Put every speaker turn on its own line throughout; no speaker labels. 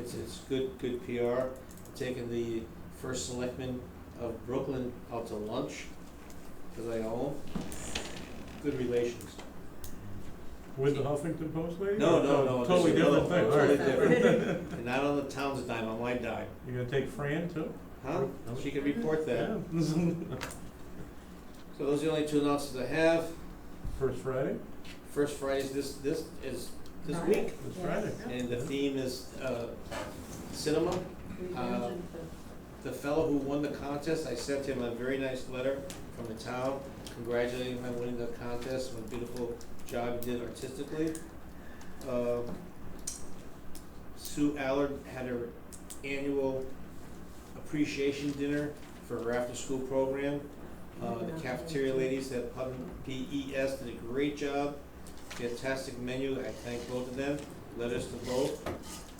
It's, it's good, good PR, taking the first selectman of Brooklyn out to lunch, cause I own, good relations.
With the Huffington Post lady?
No, no, no, this
Totally
is another one,
different thing, all
totally
right.
different. And not on the town's dime, on my dime,
You gonna take Fran too?
huh? She can report that.
Yeah.
So those are the only two announcements I have.
First Friday?
First Friday's this, this is this
Friday.
week,
This
Yes.
Friday.
and the theme is, uh, cinema.
Revision for-
The fellow who won the contest, I sent him a very nice letter from the town congratulating him on winning the contest, what a beautiful job he did artistically. Um, Sue Allard had her annual appreciation dinner for her after-school program. Uh, the cafeteria ladies at Putnam PES did a great job, fantastic menu, I thank both of them, letters to both.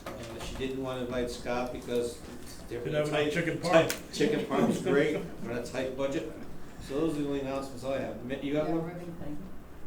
Uh, she didn't wanna invite Scott because they're
Didn't have enough
tight-
chicken
tight-
parm.
Chicken parm was great, on a tight budget. So those are the only announcements I have. Mi- You
Yeah,
got one?
ribbon thing.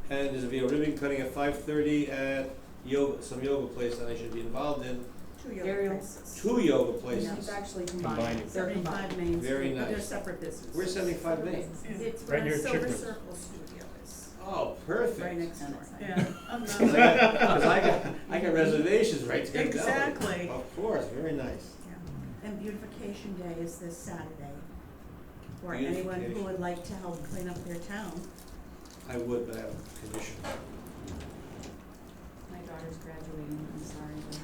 And there's gonna be a ribbon cutting at five thirty at yoga, some yoga place that I should be involved in.
Two
Very-
yoga places.
Two yoga
It's
places.
actually
Combining.
combined, seventy-five Main Street.
Very
but They're
nice.
separate businesses.
Where's seventy-five Main?
It's
Right
where
near
Silver
Chicklets.
Circle Studio is,
Oh,
right
perfect.
next door.
Yeah.
I'm not-
'Cause I got, 'cause I got, I got reservations right there.
Exactly.
Of course, very nice.
Yeah. And beautification day is this Saturday. For anyone who
Beautification.
would like to help clean up their town.
I would, but I have a condition.
My daughter's graduating, I'm sorry, but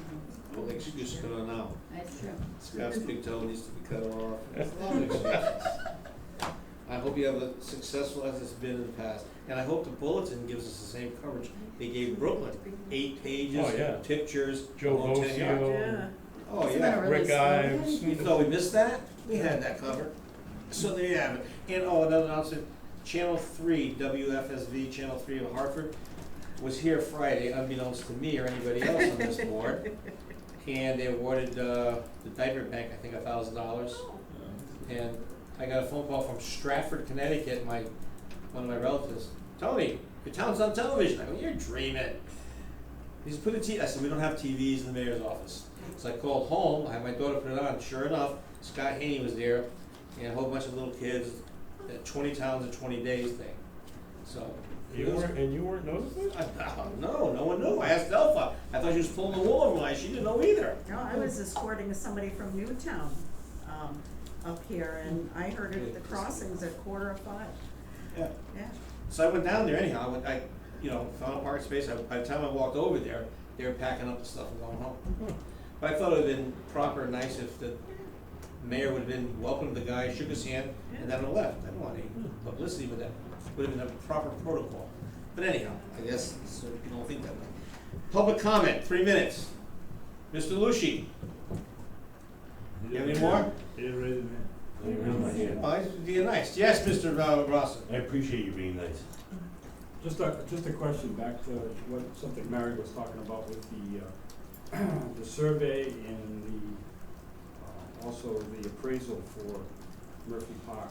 I
Well, excuse cut on out.
That's true.
Scott's big toe needs to be cut off. There's a lot of excuses. I hope you have a successful as it's been in the past, and I hope the bulletin gives us the same coverage they gave Brooklyn. Eight pages,
Oh, yeah.
pictures,
Joe
all ten yards.
Bosio,
Oh,
Isn't that
yeah.
really
Rick
slow?
Ives.
You thought we missed that? We had that covered. So there you have it. And oh, another announcement, Channel Three, WFSV Channel Three of Hartford was here Friday, unbeknownst to me or anybody else on this board. And they awarded, uh, the diaper bank, I think, a thousand dollars. And I got a phone call from Stratford, Connecticut, my, one of my relatives, Tony, your town's on television, I go, you're dreaming. He said, put a T, I said, we don't have TVs in the mayor's office. So I called home, I had my daughter put it on, sure enough, Scott Haney was there, and a whole bunch of little kids, that twenty towns in twenty days thing, so.
You weren't, and you weren't noticing?
I, no, no one knew, I asked Delphi, I thought she was pulling the wool over my eyes, she didn't know either.
No, Oh, I was escorting somebody from Newtown, um, up here and I heard it at the crossings at quarter of five,
Yeah.
yeah.
So I went down there anyhow, I went, I, you know, found a parking space, I, by the time I walked over there, they were packing up the stuff and going home. But I thought it would've been proper and nice if the mayor would've been, welcomed the guy, shook his hand, and then left, I don't want any publicity with that, would've been a proper protocol. But anyhow, I guess, so you don't think that way. Public comment, three minutes. Mr. Lucy, you have any more?
Yeah, raise your hand.
Oh, you're nice, yes, Mr. Ra- Rossum.
I appreciate you being nice.
Just a, just a question back to what, something Mary was talking about with the, uh, the survey and the, uh, also the appraisal for Murphy Park.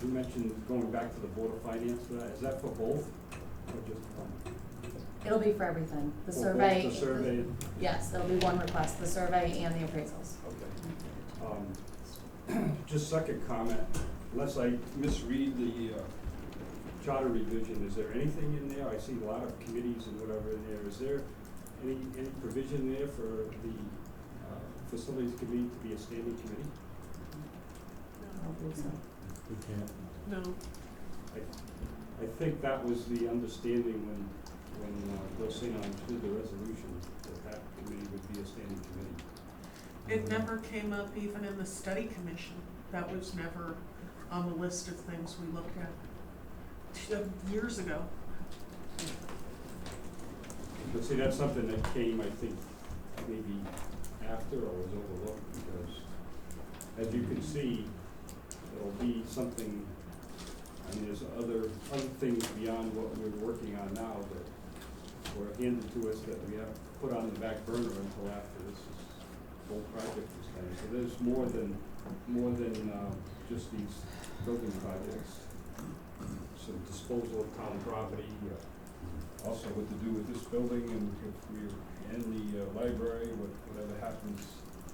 You mentioned going back to the Board of Finance for that, is that for both, or just one?
It'll be for everything, the
For both
survey.
The survey,
Yes, there'll be one request, the survey and the appraisals.
okay.
Mm-hmm.
Um, Just second comment, unless I misread the, uh, charter revision, is there anything in there, I see a lot of committees and whatever in there, is there any, any provision there for the, uh, facilities committee to be a standing committee?
I don't believe so.
We can't.
No.
I think that was the understanding when, when, uh, Bill Sinon did the resolution, that that committee would be a standing committee.
It never came up even in the study commission. That was never on the list of things we looked at t- years ago.
But see, that's something that came, I think, maybe after or was overlooked, because as you can see, there'll be something, I mean, there's other, other things beyond what we're working on now that were handed to us that we have to put on the back burner until after this is- whole project is done. So there's more than, more than, uh, just these building projects. Some disposal of town property, uh, also what to do with this building and if we end the uh, library, what, whatever happens